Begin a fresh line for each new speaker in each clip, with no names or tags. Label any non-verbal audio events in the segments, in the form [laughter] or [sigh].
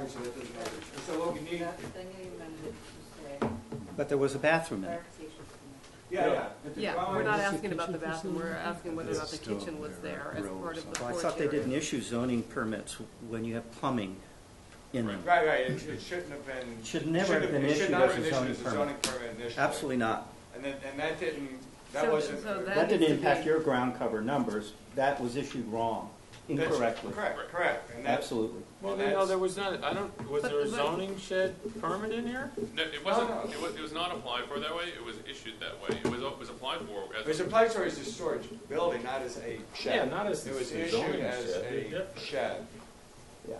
Actually, that doesn't matter. So what we need,
That's the name and it's, uh,
But there was a bathroom in it.
clarification.
yeah, yeah. If the
Yeah, we're
drawing-
not
Is the
asking about the
kitchen
bathroom, we're
facility?
asking whether or not the kitchen was there as part of the
Well, I
porch
thought they
area.
didn't issue zoning permits when you have plumbing in them.
Right, right, it it shouldn't have been.
It should never
shouldn't
have been
it should
issued
not
as
have
a
been
zoning
issued as a zoning
permit.
permit initially.
Absolutely not.
And then, and that didn't, that
So-
wasn't.
so that-
That didn't
needs to
impact
be-
your ground cover numbers, that was issued wrong,
that's-
incorrectly.
Correct, correct. And that's,
Absolutely.
Well,
And
no,
that's-
there was not, I don't, was
But-
there a
but-
zoning shed permit in here?
No, it wasn't,
no.
it was, it was not applied for that way, it was issued that way, it was, it was applied for
it
as,
was applied for as a storage building, not as a
Yeah,
shed.
not as
It
a
was
zoning
issued as
shed.
a shed.
Yeah.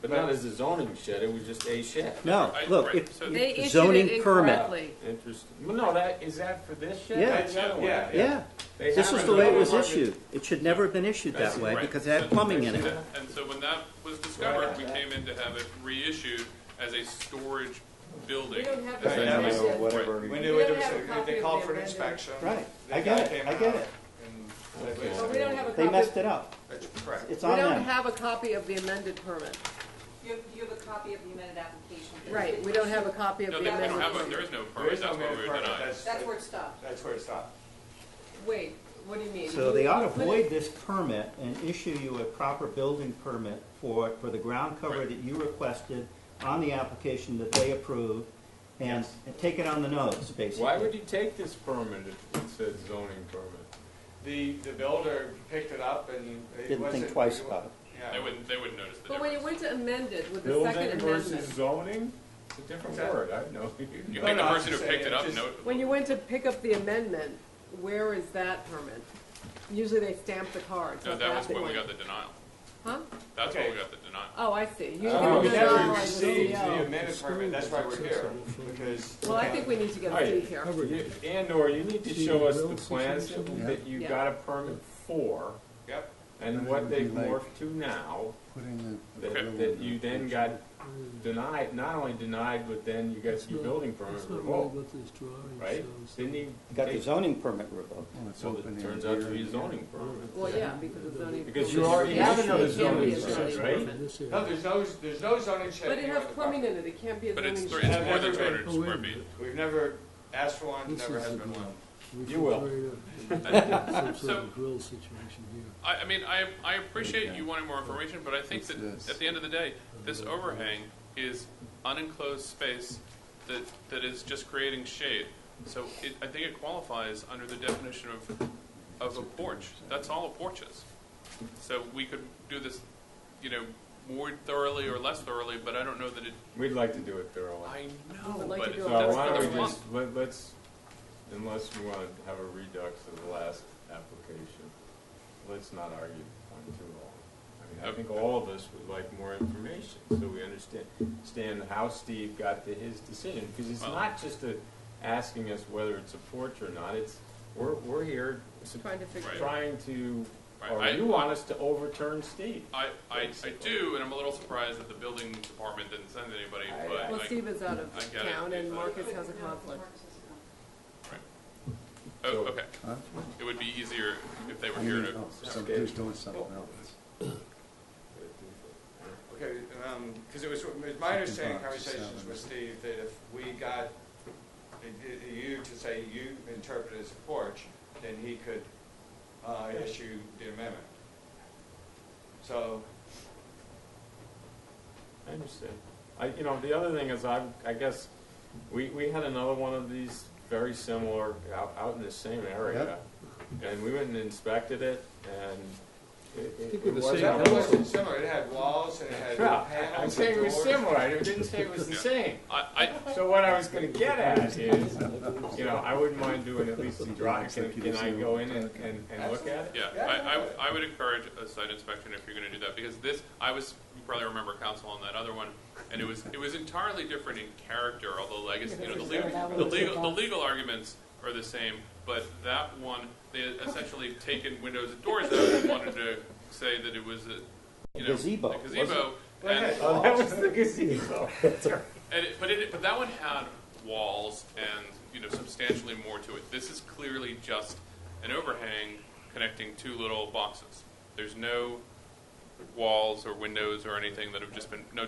But not as a zoning shed, it was just a shed.
No,
I-
look,
right,
if,
so-
They issued
Zoning
it
permit.
incorrectly.
Interesting. Well, No, that, is that for this shed?
Yeah.
That's the other one.
Yeah,
yeah,
They
this
have
was
it
the way it
on
was
market.
issued. It should never have been issued that way
Right.
because it had
So-
plumbing in it.
And so when that was discovered, we came in to have it reissued as a storage building.
We don't have
Essentially.
that was-
a
whatever.
When
We
they, when
don't
they-
have a copy
they
of
called
the
for an
amended-
inspection.
Right.
the
I get
guy
it.
came
I get
out
it.
and-
But we don't have a copy.
They messed it up.
That's correct.
It's
We
on
don't
them.
have a copy of the amended permit.
You have, you have a copy of the amended application.
Right, we don't have a copy of
No,
the
they they
amended
don't have, a- there
permit.
is no
There
permit,
is no
that's why we
minimum
were
permit.
denied.
That's,
That's where it stopped.
that's where it stopped.
Wait, what do you mean?
So they ought to
Put it-
void this permit and issue you a proper building permit for, for the ground cover
Right.
that you requested on the application that they approved and, and take it on the nose, basically.
Why would you take this permit if it said zoning permit?
The, the builder picked it up and it
Didn't
wasn't.
think twice about it.
They
Yeah.
wouldn't, they wouldn't notice the
But when you
difference.
went to amended with the second
Building versus
amendment,
zoning? It's a different
Okay.
word, I know. [laughs]
You
No,
think the
no, I was
person who
just
picked
saying,
it up
just-
knows.
when you went to pick up the amendment, where is that permit? Usually they stamp the cards.
No,
not
that was
big
when we
one.
got the denial,
Huh?
that's when
Okay.
we got the denial.
Oh, I see. You
So
can
We
we
go
never
on like the E
received
CEO.
the amended permit, that's why we're here, because.
Well, I think we need to get a
Alright.
deed here.
You- And or you need to
See
show
the
us the
grill
plans
situation?
that you
Yeah.
got a permit for
Yep,
and
And it
what
would be
they've
like-
morphed to now,
Putting the.
that, that you then got denied, not only denied, but then you got your building permit
That's not really
revoked,
what this drawing
right?
shows.
Didn't he?
Got the zoning permit revoked.
Well, it's
So
open
it
in
turns
here
out to be a
and
zoning
here.
permit.
Well, yeah, because of zoning.
Because
permits.
you already
The avenue
issued a
can't be a
zoning permit,
zoning
right?
permit.
This
no,
area.
there's no, there's no zoning check.
But it
here
has
on the
plumbing
property.
in it, it can't be a
But it's,
zoning
thr-
shed.
it's more than two
Everybody-
hundred
Oh, wait a
square feet.
minute.
We've never asked for one,
This
never
is
has
the
been one.
You will.
refrigerator, Some sort
So-
of grill uh, situation here.
I, I mean, I, I appreciate you wanting more information, but I think
It's
that
this.
at the end of the day, this overhang is unenclosed space that, that is just creating shade. So it, I think it qualifies under the definition of, of a porch. That's all a porch is. So we could do this, you know, more thoroughly or less thoroughly, but I don't know that it,
We'd like to do it thoroughly.
I
I'd
know,
like
but
to
it-
do
So
it
that's
why
not
don't
what
we
I want.
just, let- let's, unless you want to have a redux of the last application, let's not argue on too long. I mean, I think all of us would like more information, so we understand, understand how Steve got to his decision. Because it's
Well-
not just a, asking us whether it's a porch or not, it's, we're, we're here s-
Trying to figure
Right.
it out.
trying to,
Right,
or
I-
you want us to overturn Steve.
I, I, I do, and I'm a little surprised that the building department didn't send anybody,
I-
but
Well,
like,
Steve is out of
I get it.
town and Marcus has a
No,
conflict.
Marcus has a conflict.
oh,
So-
okay.
Huh?
It would be easier if they were
I
here
mean,
to
oh, some
Okay.
dude's doing something else.
Okay, um 'cause because it was, it was my understanding
Fucking box,
conversations
seven.
with Steve that if we got i- i- you to say you interpret it as a porch, then he could, uh, issue the amendment. So,
I understand. I, you know, the other thing is, I, I guess, we, we had another one of these very similar out, out in the same area. And we went and inspected it and it, it
think
it
we're the
wasn't.
same
that
a-
wasn't similar, it had walls and it had
Yeah,
panels
I'm
and
saying it was
doors.
similar, I didn't say it was the
Yeah.
[laughs]
same.
I, I,
So what I was gonna get at is, you know, I wouldn't mind doing at least a drive, can, can I go in and, and, and look at it?
Yeah, I, I, I would encourage a site inspection if you're gonna do that, because this, I was, you probably remember council on that other one, and it was, it was entirely different in character, although legacy, you know, the legal, the legal, the legal arguments are the same, but that one, they had essentially taken windows and doors out and wanted to say that it was a, you know,
Gazebo,
a
wasn't it?
gazebo, and,
Oh, [laughs] that was the gazebo.
and it, but it, but that one had walls and you know substantially more to it. This is clearly just an overhang connecting two little boxes. There's no walls or windows or anything that have just been no